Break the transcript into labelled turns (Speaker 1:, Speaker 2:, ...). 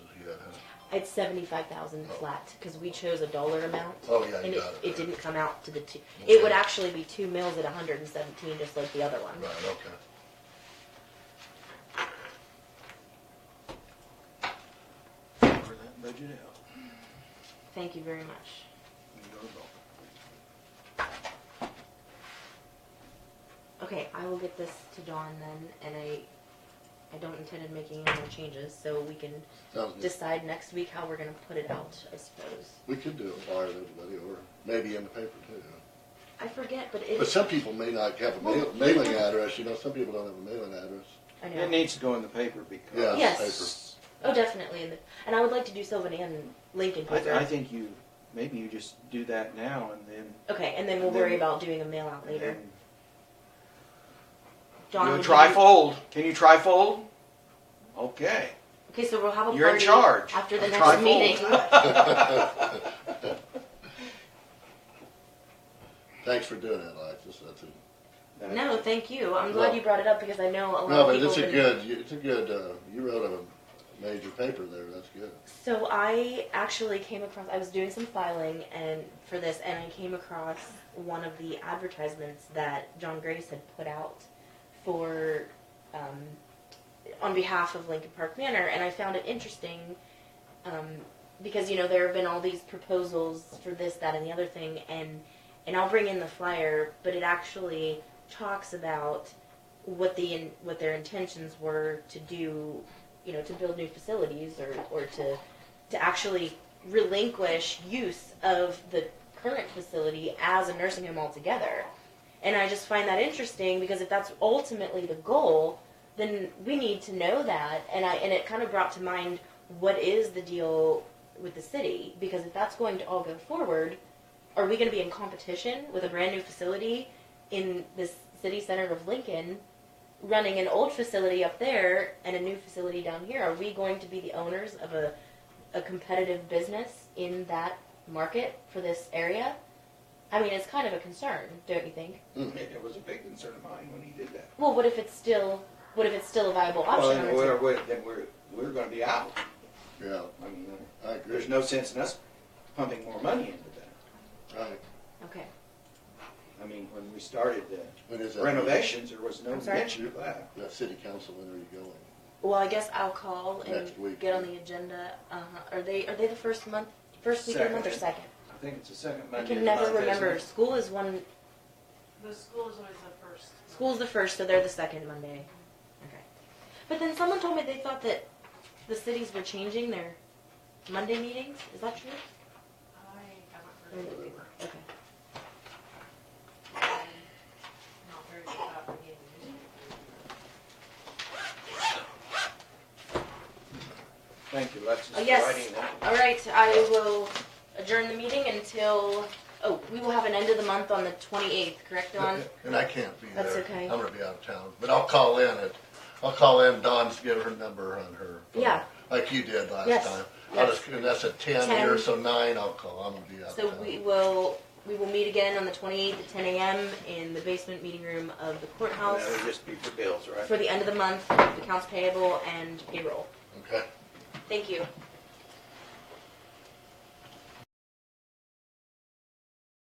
Speaker 1: It's seventy-five thousand flat, cause we chose a dollar amount.
Speaker 2: Oh, yeah,
Speaker 1: And
Speaker 2: you
Speaker 1: it,
Speaker 2: got it.
Speaker 1: it didn't come out to the two,
Speaker 2: Okay.
Speaker 1: it would actually be two mills at hundred and seventeen, just like the other one.
Speaker 2: Right, okay.
Speaker 3: Figure that budget out.
Speaker 1: Thank you very much.
Speaker 3: You go to vote.
Speaker 1: Okay, I will get this to Dawn then, and I, I don't intend on making any more changes, so we can
Speaker 2: Sounds good.
Speaker 1: decide next week how we're gonna put it out, I suppose.
Speaker 2: We could do a flyer to everybody, or maybe in the paper too.
Speaker 1: I forget, but
Speaker 2: But
Speaker 1: it,
Speaker 2: some people may not have a mail- mailing address, you know, some people don't have a mailing address.
Speaker 1: I
Speaker 3: It
Speaker 1: know,
Speaker 3: needs to go in the paper
Speaker 2: Yeah,
Speaker 3: because.
Speaker 1: Yes. oh, definitely, and, the- and I would like to do Sylvan and Lincoln
Speaker 3: I, I
Speaker 1: paper.
Speaker 3: think you, maybe you just do that now and then.
Speaker 1: Okay, and then we'll
Speaker 3: And then-
Speaker 1: worry about doing a mail out later.
Speaker 3: and-
Speaker 1: Dawn,
Speaker 3: You
Speaker 1: would you-
Speaker 3: trifold, can you trifold? Okay.
Speaker 1: Okay, so we'll have a party.
Speaker 3: You're in charge.
Speaker 1: After the
Speaker 3: I'm
Speaker 1: next
Speaker 3: trifold.
Speaker 1: meeting.
Speaker 2: Thanks for doing that, Alexis, that's a,
Speaker 1: No, thank you. I'm glad
Speaker 2: No.
Speaker 1: you brought it up because I know a lot
Speaker 2: no,
Speaker 1: of
Speaker 2: but
Speaker 1: people.
Speaker 2: it's a
Speaker 1: have been-
Speaker 2: good, it's a good, uh, you wrote a major paper there, that's good.
Speaker 1: So I actually came across. I was doing some filing and for this, and I came across one of the advertisements that John Grace had put out for um, on behalf of Lincoln Park Manor, and I found it interesting um, because you know there have been all these proposals for this, that, and the other thing, and and I'll bring in the flyer, but it actually talks about what the in, what their intentions were to do, you know, to build new facilities or or to to actually relinquish use of the current facility as a nursing home altogether. And I just find that interesting because if that's ultimately the goal, then we need to know that. And I and it kind of brought to mind what is the deal with the city because if that's going to all go forward, are we going to be in competition with a brand new facility in this city center of Lincoln, running an old facility up there and a new facility down here? Are we going to be the owners of a a competitive business in that market for this area? I mean, it's kind of a concern, don't you think?
Speaker 3: It was a big concern of mine when he did that.
Speaker 1: Well, what if it's still what if it's still a viable option?
Speaker 3: Well,
Speaker 1: on
Speaker 3: then
Speaker 1: its
Speaker 3: we're,
Speaker 1: own?
Speaker 3: we're- then we're, we're gonna be out.
Speaker 2: Yeah,
Speaker 3: I mean,
Speaker 2: I
Speaker 3: there's
Speaker 2: agree,
Speaker 3: no sense in us pumping more money into that.
Speaker 2: right.
Speaker 1: Okay.
Speaker 3: I mean, when we started the
Speaker 2: When is that?
Speaker 3: renovations, there was no
Speaker 1: I'm sorry?
Speaker 3: mention of that.
Speaker 2: That city council, when are you going?
Speaker 1: Well, I guess I'll call and
Speaker 2: Next week.
Speaker 1: get on the agenda. Uh-huh. Are they are they the first month first week of the month or second?
Speaker 3: I think it's the second
Speaker 1: I
Speaker 3: Monday.
Speaker 1: can
Speaker 3: of
Speaker 1: never
Speaker 3: the month, isn't
Speaker 1: remember.
Speaker 3: it?
Speaker 1: School is one.
Speaker 4: The school is always the first.
Speaker 1: School's the first, so they're the second Monday. Okay. But then someone told me they thought that the cities were changing their Monday meetings. Is that true?
Speaker 4: I haven't heard of it.
Speaker 1: Okay.
Speaker 4: Not very good at reading.
Speaker 3: Thank you, Alexis,
Speaker 1: Oh,
Speaker 3: for
Speaker 1: yes.
Speaker 3: writing that.
Speaker 1: All right, I will adjourn the meeting until. Oh, we will have an end of the month on the 28th, correct, Dawn?
Speaker 2: And I can't be there.
Speaker 1: That's okay.
Speaker 2: I'm gonna be out of town, but I'll call in at, I'll call in, Dawn's give her number on her. phone,
Speaker 1: Yeah.
Speaker 2: Like you did last
Speaker 1: Yes,
Speaker 2: time. I'll
Speaker 1: yes.
Speaker 2: just, and that's a ten,
Speaker 1: Ten.
Speaker 2: here, so nine, I'll call, I'm gonna be out of
Speaker 1: So
Speaker 2: town.
Speaker 1: we will we will meet again on the 28th at 10 a.m. in the basement meeting room of the courthouse
Speaker 3: That'll just be for bills, right?
Speaker 1: for the end of the month, accounts payable and payroll.
Speaker 2: Okay.
Speaker 1: Thank you.